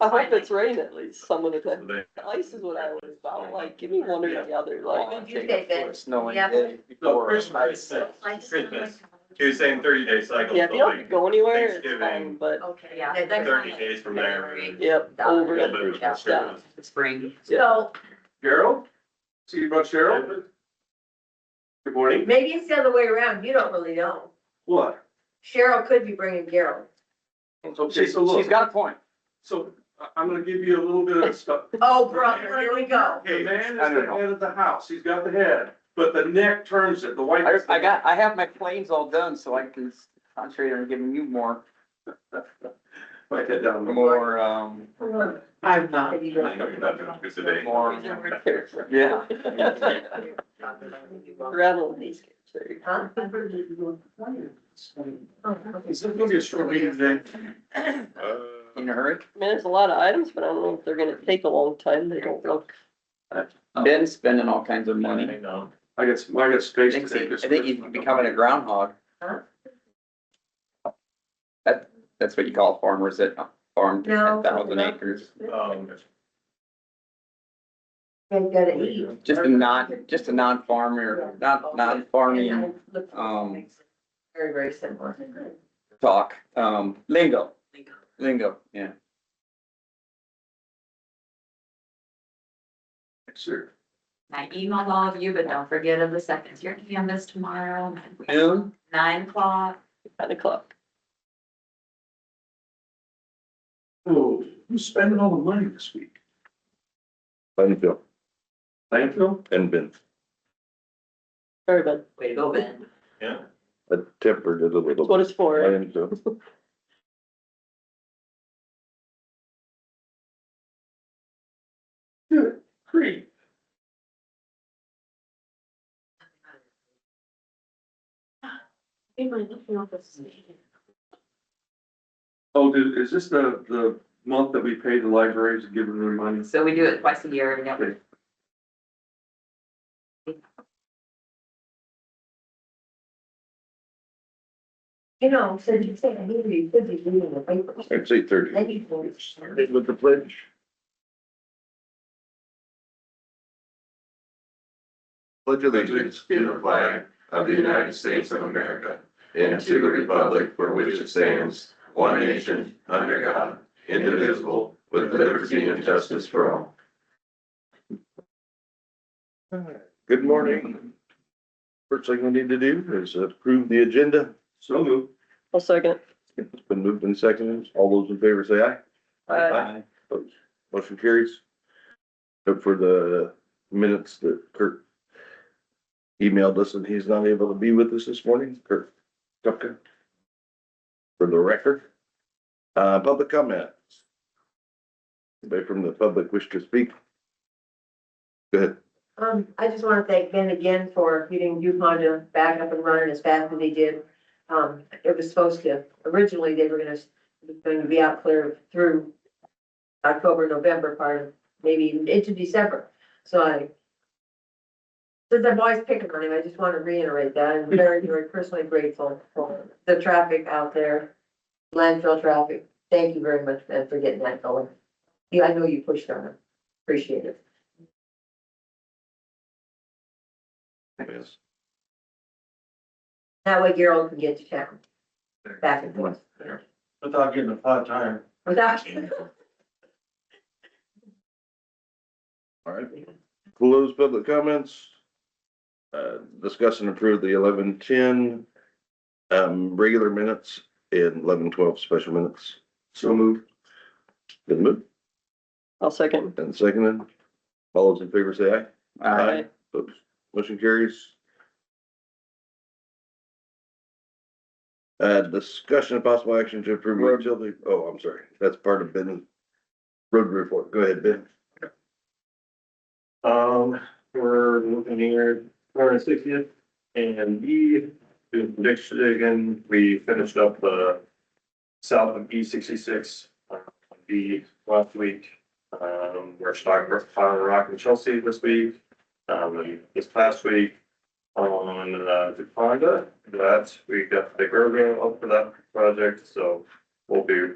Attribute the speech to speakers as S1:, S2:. S1: I hope it's rain at least some of the time.
S2: They-
S1: Ice is what I was about, like, give me one or the other,
S3: Oh,
S1: like.
S4: You did good.
S5: Snowing
S4: Yeah.
S5: day
S2: So
S5: before.
S2: Christmas,
S4: I just don't like-
S2: Christmas, he was saying thirty day cycle,
S1: Yeah, if
S2: so
S1: you don't have
S2: like
S1: to go anywhere, it's fine,
S2: Thanksgiving.
S1: but,
S6: Oh,
S4: Okay, yeah. they're
S2: thirty
S4: fine.
S2: days from there.
S1: yep,
S4: Yeah.
S1: over
S2: Little
S1: it.
S2: bit of
S4: Yeah.
S2: Christmas.
S3: Spring.
S4: So
S5: Cheryl? See you about Cheryl? Good morning.
S4: maybe it's the other way around. You don't really know.
S5: What?
S4: Cheryl could be bringing Gerald.
S5: Okay, so look,
S3: got a point.
S5: so I- I'm gonna give you a little bit of stuff.
S4: Oh, brother, here we go.
S5: The man
S3: I
S5: is
S3: don't
S5: the
S3: know.
S5: head of the house. He's got the head, but the neck turns it. The white.
S3: I, I got, I have my planes all done, so I can concentrate on giving you more,
S5: Write that down.
S3: more, um,
S4: I'm
S3: not.
S2: I know you're not doing it today.
S3: more, yeah.
S1: Rattle these kids, there you go.
S6: Um,
S5: Is this gonna be a short meeting today?
S2: Uh,
S3: In a hurry?
S1: I mean, there's a lot of items, but I don't know if they're gonna take a long time, they don't look.
S3: Been spending all kinds of money.
S2: I know.
S5: I got, some- I got space.
S3: Thinks he-
S5: today.
S3: I think he's becoming a groundhog.
S4: Huh?
S3: That, that's what you call farmers that farm
S4: No.
S3: ten thousand acres.
S5: Uh,
S2: Um,
S4: You gotta eat.
S3: Just a non, just a non-farmer, not, non-farming um,
S4: Very, very similar.
S3: talk, um, lingo. Lingo, yeah.
S5: Sure.
S6: I emailed all of you, but don't forget of the seconds. You're gonna be on this tomorrow,
S3: Noon?
S6: nine o'clock.
S1: Nine o'clock.
S5: Oh, who's spending all the money this week?
S7: Plainfield
S5: Landfill?
S7: and Vince,
S1: Very bad.
S6: Way to go, Ben.
S2: yeah,
S7: I tempered it a
S1: That's
S7: little.
S1: what it's for.
S7: Plainfield.
S5: Good. Great. Oh, dude, is this the, the month that we pay the libraries and give them their money?
S6: So we do it twice a year and every.
S4: You know, so you say, I need to be, could be reading the paper.
S7: I'd say thirty.
S4: Then you can.
S7: Started With the pledge. Pledge
S2: allegiance to the flag
S7: of
S2: the United States of America and to the republic for which it stands, one nation, under God, indivisible, with liberty and justice for all.
S7: Good morning. First thing we need to do is approve the agenda.
S5: So moved.
S1: I'll second.
S7: It's been moved and seconded. All those in favor say aye.
S1: Uh,
S7: Opposed? Motion carries. Except for the minutes that Kurt emailed us and he's not able to be with us this morning, Kurt Kupka. For the record, uh, public comments. Anybody from the public wish to speak? Go ahead.
S4: Um, I just want to thank Ben again for getting Yukon back up and running as fast as they did. Um, it was supposed to, originally they were gonna, going to be out clear through October, November, part of, maybe even into December. So I, since I'm always picking on him, I just want to reiterate that. I'm very, very personally grateful for the traffic out there, landfill traffic. Thank you very much, Ben, for getting that going. You, I know you pushed on it. Appreciate it.
S7: Yes.
S4: That way Gerald can get to town. Back and forth.
S5: Without getting a hot tire.
S4: Without,
S7: All right. Close public comments. Uh, discuss and approve the eleven ten, um, regular minutes and eleven twelve special minutes.
S5: So moved.
S7: Good move.
S1: I'll second.
S7: And seconded, all those in favor say aye.
S1: Aye.
S7: Oops, motion carries. Uh, discussion of possible action to approve utility, oh, I'm sorry, that's part of Ben's road report, go ahead, Ben.
S2: Um, we're looking here, we're sixtieth, and B, next again, we finished up the south of E sixty-six, uh, B last week. Um, we're starting with Fire Rock and Chelsea this week, um, and this past week on, uh, Deponda, that we got the guardrail up for that project, so we'll be